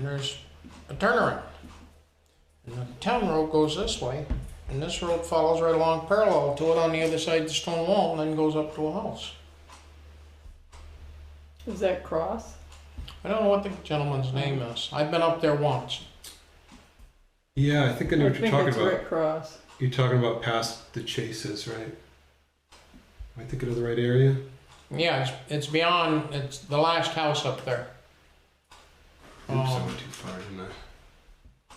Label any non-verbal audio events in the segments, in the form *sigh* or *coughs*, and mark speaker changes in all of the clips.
Speaker 1: there's a turnaround. And the town road goes this way, and this road follows right along parallel to it on the other side of the stone wall and then goes up to a house.
Speaker 2: Is that cross?
Speaker 1: I don't know what the gentleman's name is. I've been up there once.
Speaker 3: Yeah, I think I know what you're
Speaker 2: think
Speaker 3: talking
Speaker 2: it's
Speaker 3: about.
Speaker 2: Rick Cross.
Speaker 3: You're talking about past the chases, right? Am I thinking of the right area?
Speaker 1: Yeah, it's, it's beyond, it's the last house up there.
Speaker 3: Oops, I
Speaker 1: Um,
Speaker 3: went too far, didn't I?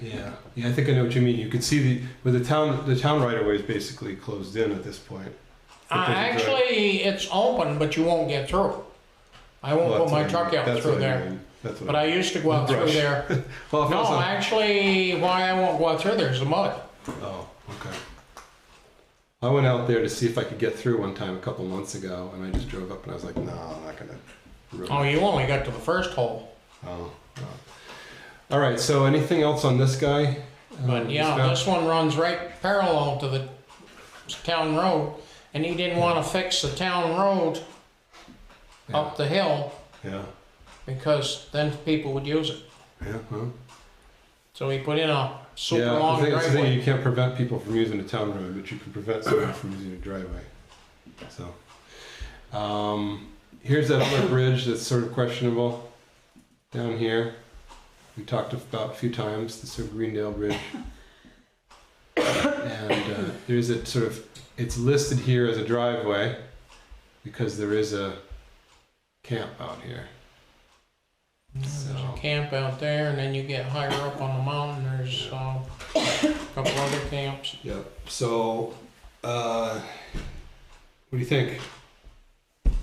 Speaker 3: Yeah, yeah, I think I know what you mean. You could see the with the town the town right of way is basically closed in at this point.
Speaker 1: Uh,
Speaker 3: Because it's right-
Speaker 1: actually, it's open, but you won't get through. I won't put
Speaker 3: Well, that's
Speaker 1: my
Speaker 3: what I
Speaker 1: truck
Speaker 3: mean.
Speaker 1: out
Speaker 3: That's
Speaker 1: through
Speaker 3: what I
Speaker 1: there.
Speaker 3: mean. That's what
Speaker 1: But I used to go out through
Speaker 3: Brush.
Speaker 1: there.
Speaker 3: *laughs* well, if I was
Speaker 1: No,
Speaker 3: on-
Speaker 1: actually, why I won't go out through there is the mud.
Speaker 3: Oh, okay. I went out there to see if I could get through one time a couple months ago, and I just drove up and I was like, no, I'm not gonna. ruin
Speaker 1: Oh,
Speaker 3: it."
Speaker 1: you only got to the first hole.
Speaker 3: Oh, no. All right. So, anything else on this guy? Um,
Speaker 1: But
Speaker 3: this
Speaker 1: yeah,
Speaker 3: guy?
Speaker 1: this one runs right parallel to the town road, and he didn't want to fix the town road
Speaker 3: yeah.
Speaker 1: up the hill
Speaker 3: Yeah.
Speaker 1: because then people would use it.
Speaker 3: Yeah. Well,
Speaker 1: So he put in a super
Speaker 3: yeah.
Speaker 1: long
Speaker 3: the thing, that's the thing,
Speaker 1: driveway.
Speaker 3: you can't prevent people from using a town road, but you can prevent someone from using a driveway. So, um, here's that other bridge that's sort of questionable down here. We talked about a few times the sort of Greendale Bridge, and uh, there's a sort of it's listed here as a driveway because there is a camp out here.
Speaker 1: There's
Speaker 3: So-
Speaker 1: a camp out there, and then you get higher up on the mountain. There's uh, a couple other camps.
Speaker 3: Yep. So, uh, what do you think
Speaker 2: What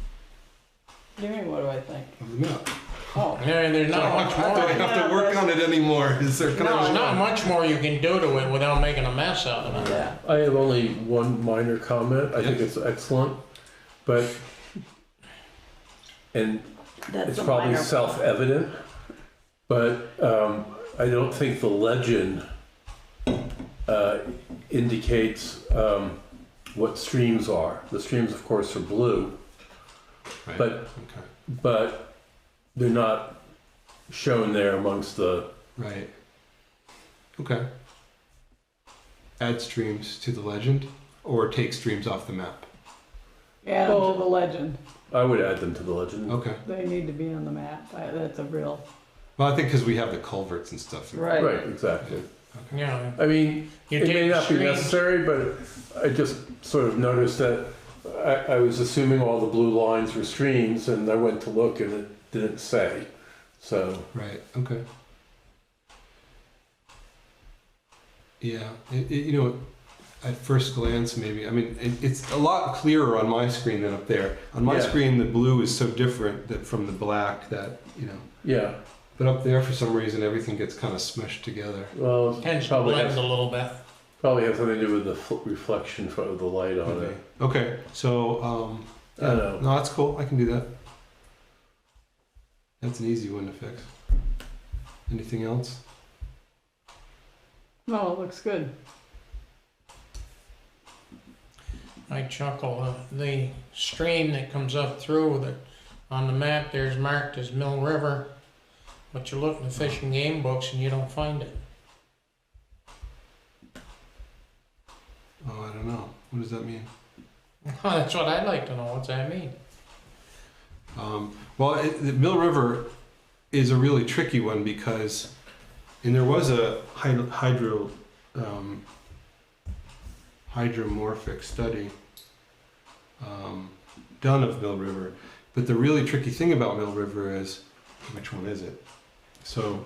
Speaker 2: do you mean, what do I think?
Speaker 3: of the map?
Speaker 2: Oh,
Speaker 1: Yeah, there's not much
Speaker 3: I don't
Speaker 1: more.
Speaker 3: have to work on it anymore. *laughs* Is there? Can
Speaker 1: There's
Speaker 3: I
Speaker 1: not much more you can do to it without making a mess out of it.
Speaker 2: yeah.
Speaker 4: I have only one minor comment. I think
Speaker 3: Yeah.
Speaker 4: it's excellent, but and
Speaker 2: That's
Speaker 4: it's probably self-evident, but um, I don't think the legend uh, indicates um, what streams are. The streams, of course, are blue,
Speaker 3: Right.
Speaker 4: but
Speaker 3: Okay.
Speaker 4: but they're not shown there amongst the.
Speaker 3: Right. Okay. Add streams to the legend, or take streams off the map.
Speaker 2: Add them to the legend.
Speaker 4: I would add them to the legend.
Speaker 3: Okay.
Speaker 2: They need to be on the map. I- That's a real.
Speaker 3: Well, I think because we have the culverts and stuff.
Speaker 2: Right.
Speaker 4: Right, exactly.
Speaker 1: Yeah.
Speaker 4: I mean,
Speaker 1: You
Speaker 4: it
Speaker 1: take
Speaker 4: may
Speaker 1: the
Speaker 4: not be
Speaker 1: stream-
Speaker 4: necessary, but I just sort of noticed that I, I was assuming all the blue lines were streams, and I went to look, and it didn't say. So
Speaker 3: Right. Okay. Yeah. It, it, you know, at first glance, maybe. I mean, it, it's a lot clearer on my screen than up there. On my
Speaker 4: Yeah.
Speaker 3: screen, the blue is so different that from the black that you know.
Speaker 4: yeah,
Speaker 3: But up there, for some reason, everything gets kind of smushed together.
Speaker 4: well,
Speaker 1: Tends to
Speaker 4: probably
Speaker 1: blend
Speaker 4: has,
Speaker 1: a little bit.
Speaker 4: probably has something to do with the fl- reflection fro- of the light on it.
Speaker 3: Okay. So, um,
Speaker 4: Oh, I
Speaker 3: yeah,
Speaker 4: know.
Speaker 3: no, that's cool. I can do that. That's an easy one to fix. Anything else?
Speaker 2: No, it looks good.
Speaker 1: I chuckle. uh, The stream that comes up through that on the map there's marked as Mill River, but you look in the fish and game books and you don't find it. *laughs*
Speaker 3: Oh, I don't know. What does that mean?
Speaker 1: That's what I'd like to know. What's that mean?
Speaker 3: Um, well, it, the Mill River is a really tricky one because, and there was a hydro, hydro um, hydromorphic study um, done of Mill River, but the really tricky thing about Mill River is which one is it? So,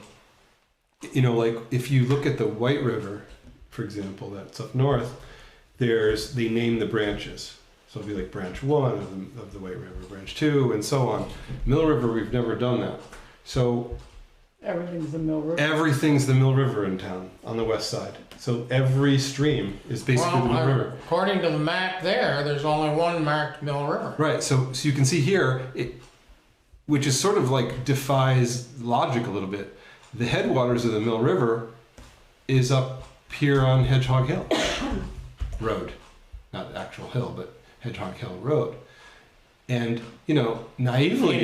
Speaker 3: you know, like if you look at the White River, for example, that's up north, there's they name the branches. So it'll be like branch one of the, of the White River, branch two, and so on. Mill River, we've never done that. So
Speaker 2: Everything's a Mill River.
Speaker 3: everything's the Mill River in town on the west side. So every stream is basically
Speaker 1: Well,
Speaker 3: the Mill
Speaker 1: I-
Speaker 3: River.
Speaker 1: according to the map there, there's only one marked Mill River.
Speaker 3: Right. So, so you can see here, it, which is sort of like defies logic a little bit. The headwaters of the Mill River is up here on Hedgehog Hill *coughs* Road, not actual hill, but Hedgehog Hill Road. And, you know, naively,